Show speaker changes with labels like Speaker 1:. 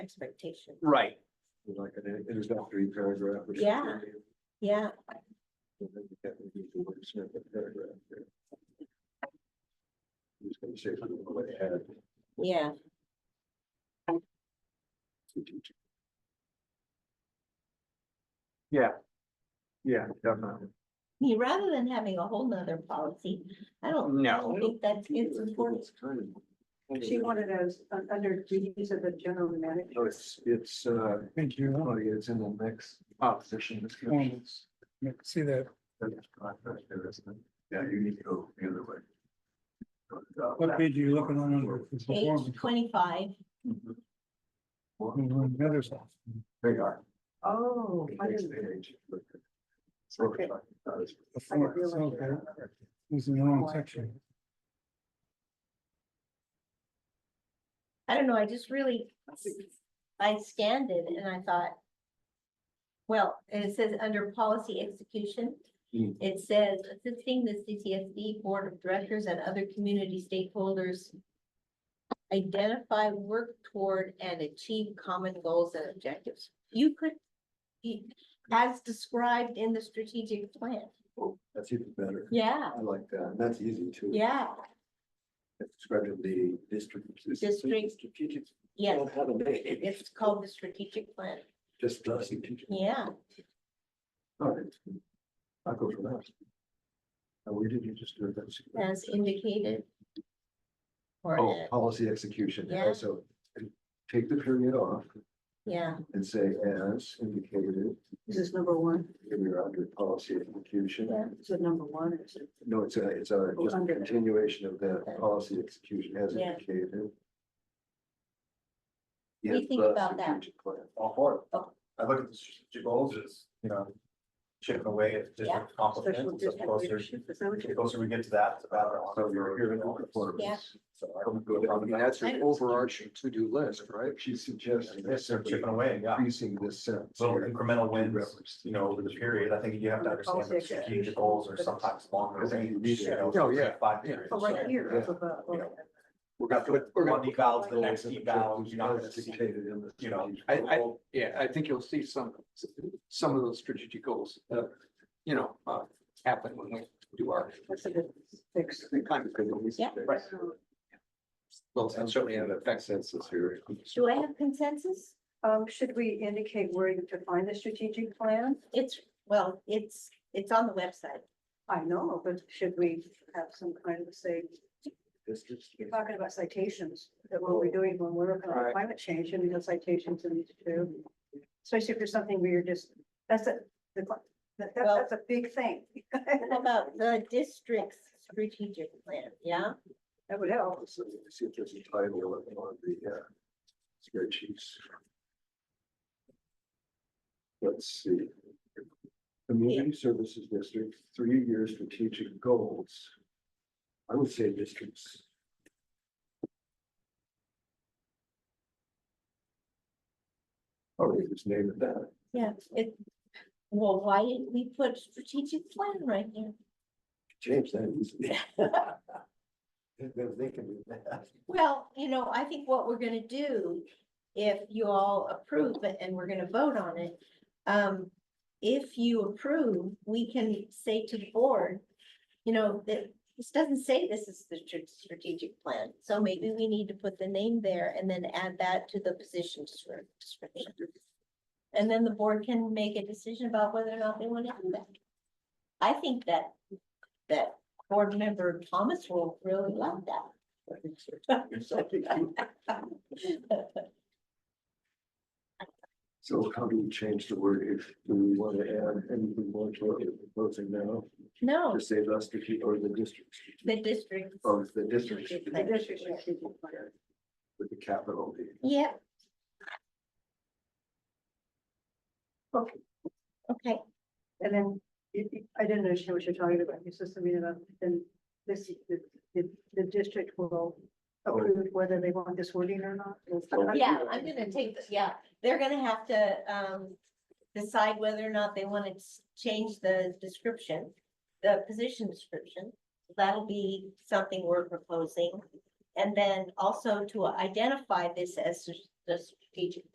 Speaker 1: expectation.
Speaker 2: Right,
Speaker 3: Like an introductory paragraph. or
Speaker 1: Yeah.
Speaker 3: something.
Speaker 1: Yeah,
Speaker 3: So then you get maybe the wordsmith of paragraph there. I'm Just gonna say something about add.
Speaker 1: yeah,
Speaker 3: to teacher.
Speaker 2: yeah. Yeah, definitely.
Speaker 1: I mean, rather than having a whole nother policy, I don't, I
Speaker 2: No.
Speaker 1: don't think that's, it's
Speaker 3: It's
Speaker 1: important.
Speaker 3: kind of-
Speaker 4: She wanted us un- under duties of the general manager.
Speaker 3: No, oh, it's, it's, uh,
Speaker 5: Thank you.
Speaker 3: oh, yeah, it's in the next opposition descriptions.
Speaker 5: I See that,
Speaker 3: That's contract there, isn't it? Yeah, you need to go the other way.
Speaker 5: what page are you looking on under? It's the
Speaker 1: Page
Speaker 5: form.
Speaker 1: twenty-five,
Speaker 3: Mm-hmm.
Speaker 5: Over on the other side.
Speaker 3: They are.
Speaker 4: Oh, I
Speaker 3: Next
Speaker 4: didn't,
Speaker 3: page.
Speaker 4: okay,
Speaker 5: The form,
Speaker 4: realize
Speaker 5: okay. It's in the wrong section.
Speaker 1: I don't know, I just really, I scanned it and I thought. Well, and it says under policy execution,
Speaker 3: Hmm.
Speaker 1: it says assisting the CCSD Board of Directors and other community stakeholders. Identify, work toward and achieve common goals and objectives. You could, you- as described in the strategic plan.
Speaker 3: That's even better.
Speaker 1: Yeah,
Speaker 3: I like that. And that's easy too.
Speaker 1: yeah,
Speaker 3: It's described in the district.
Speaker 1: District.
Speaker 3: Strategic.
Speaker 1: yes,
Speaker 3: Don't have a name.
Speaker 1: it's called the strategic plan,
Speaker 3: Just doesn't teach.
Speaker 1: yeah.
Speaker 3: All right. I'll go for that. Uh, where did you just do that?
Speaker 1: as indicated. Or,
Speaker 3: Oh,
Speaker 1: uh,
Speaker 3: policy execution.
Speaker 1: Yeah.
Speaker 3: Okay, So take the period off
Speaker 1: yeah,
Speaker 3: and say as indicated,
Speaker 4: this is number one,
Speaker 3: here we are under policy execution.
Speaker 1: Yeah.
Speaker 4: is it number one? Is it-
Speaker 3: No, it's a, it's a
Speaker 4: Oh,
Speaker 3: just
Speaker 4: under that.
Speaker 3: continuation of the policy execution as
Speaker 1: Yeah.
Speaker 3: indicated.
Speaker 1: do you
Speaker 3: Yes,
Speaker 1: think
Speaker 3: the
Speaker 1: about that?
Speaker 3: strategic plan.
Speaker 6: all for it.
Speaker 1: Oh.
Speaker 6: I look at the strategic goals as, you know, chipping away at
Speaker 1: Yeah.
Speaker 6: different complements,
Speaker 4: Special
Speaker 6: and the
Speaker 4: district
Speaker 6: closer,
Speaker 4: leadership, is that what
Speaker 6: the
Speaker 4: you-
Speaker 6: closer we get to that, the better. off
Speaker 3: So you're
Speaker 6: we're
Speaker 3: here in
Speaker 6: going.
Speaker 3: the performance.
Speaker 1: Yeah.
Speaker 6: So
Speaker 3: I
Speaker 6: I'm
Speaker 3: don't go
Speaker 6: good
Speaker 3: down- I
Speaker 6: on
Speaker 3: mean,
Speaker 6: that.
Speaker 3: that's your overarching to-do list, right? She suggested
Speaker 6: Yes, they're chipping away, yeah.
Speaker 3: increasing this sentence.
Speaker 6: Little
Speaker 3: here.
Speaker 6: incremental wins,
Speaker 3: Reference to-
Speaker 6: you know, over the period. I think you have to understand that strategic goals are sometimes longer
Speaker 3: I think you need
Speaker 6: range,
Speaker 3: to-
Speaker 6: you know.
Speaker 3: Oh, yeah,
Speaker 6: Five
Speaker 3: yeah.
Speaker 6: years.
Speaker 4: Oh, right here,
Speaker 3: Yeah.
Speaker 4: up above,
Speaker 6: You know,
Speaker 4: okay.
Speaker 3: We're
Speaker 6: Got to put
Speaker 3: we're
Speaker 6: one eval to the
Speaker 3: goals
Speaker 6: next
Speaker 3: and
Speaker 6: eval,
Speaker 3: objectives
Speaker 6: you're not gonna
Speaker 3: as
Speaker 6: see,
Speaker 3: Dictated in the.
Speaker 6: you know.
Speaker 3: strategic
Speaker 7: I- I-
Speaker 6: goal.
Speaker 7: Yeah, I think you'll see some, some of those strategic goals, uh, you know, uh, happen when we do our,
Speaker 4: That's a good fix.
Speaker 7: the kind of,
Speaker 1: Yeah.
Speaker 6: Right.
Speaker 7: well, and certainly it affects us.
Speaker 3: Census here.
Speaker 1: do I have consensus?
Speaker 4: Um, should we indicate where to find the strategic plan?
Speaker 1: It's, well, it's, it's on the website.
Speaker 4: I know, but should we have some kind of say,
Speaker 3: Districts.
Speaker 4: you're talking about citations, that what we're doing when we're working on
Speaker 7: Right.
Speaker 4: climate change, and we have citations in these two. Especially if there's something where you're just, that's a, the cli- that, that-
Speaker 1: Well-
Speaker 4: that's a big thing.
Speaker 1: How about the district's strategic plan, yeah?
Speaker 4: That would help.
Speaker 3: So you See if there's a title on one of the uh, spreadsheets. Let's see. Community Services District, three-year strategic goals. I would say districts. Oh, they just name it that.
Speaker 1: Yeah, it, well, why didn't we put strategic plan right here?
Speaker 3: Change that. easily. They can do that.
Speaker 1: Well, you know, I think what we're gonna do, if you all approve it and we're gonna vote on it, um, if you approve, we can say to the board, you know, that this doesn't say this is the tr- strategic plan, so maybe we need to put the name there and then add that to the position descri- description. And then the board can make a decision about whether or not they want to do that. I think that, that board member Thomas will really love that.
Speaker 3: I think so. So how do we change the word if, do we want to add anything more to what we're proposing now?
Speaker 1: No,
Speaker 3: To save us to keep, or the district,
Speaker 1: Oh. the district,
Speaker 3: or the district
Speaker 4: The district strategic plan.
Speaker 3: with the capital D.
Speaker 1: yeah.
Speaker 4: Okay.
Speaker 1: Okay,
Speaker 4: And then, you- you- I didn't understand what you're talking about, you said something about, then this, the, the, the district will approve whether they want this wording or not. Is that-
Speaker 1: yeah, I'm gonna take this, yeah, they're gonna have to, um, decide whether or not they wanna s- change the description, the position description. That'll be something we're proposing. And then also to identify this as the strategic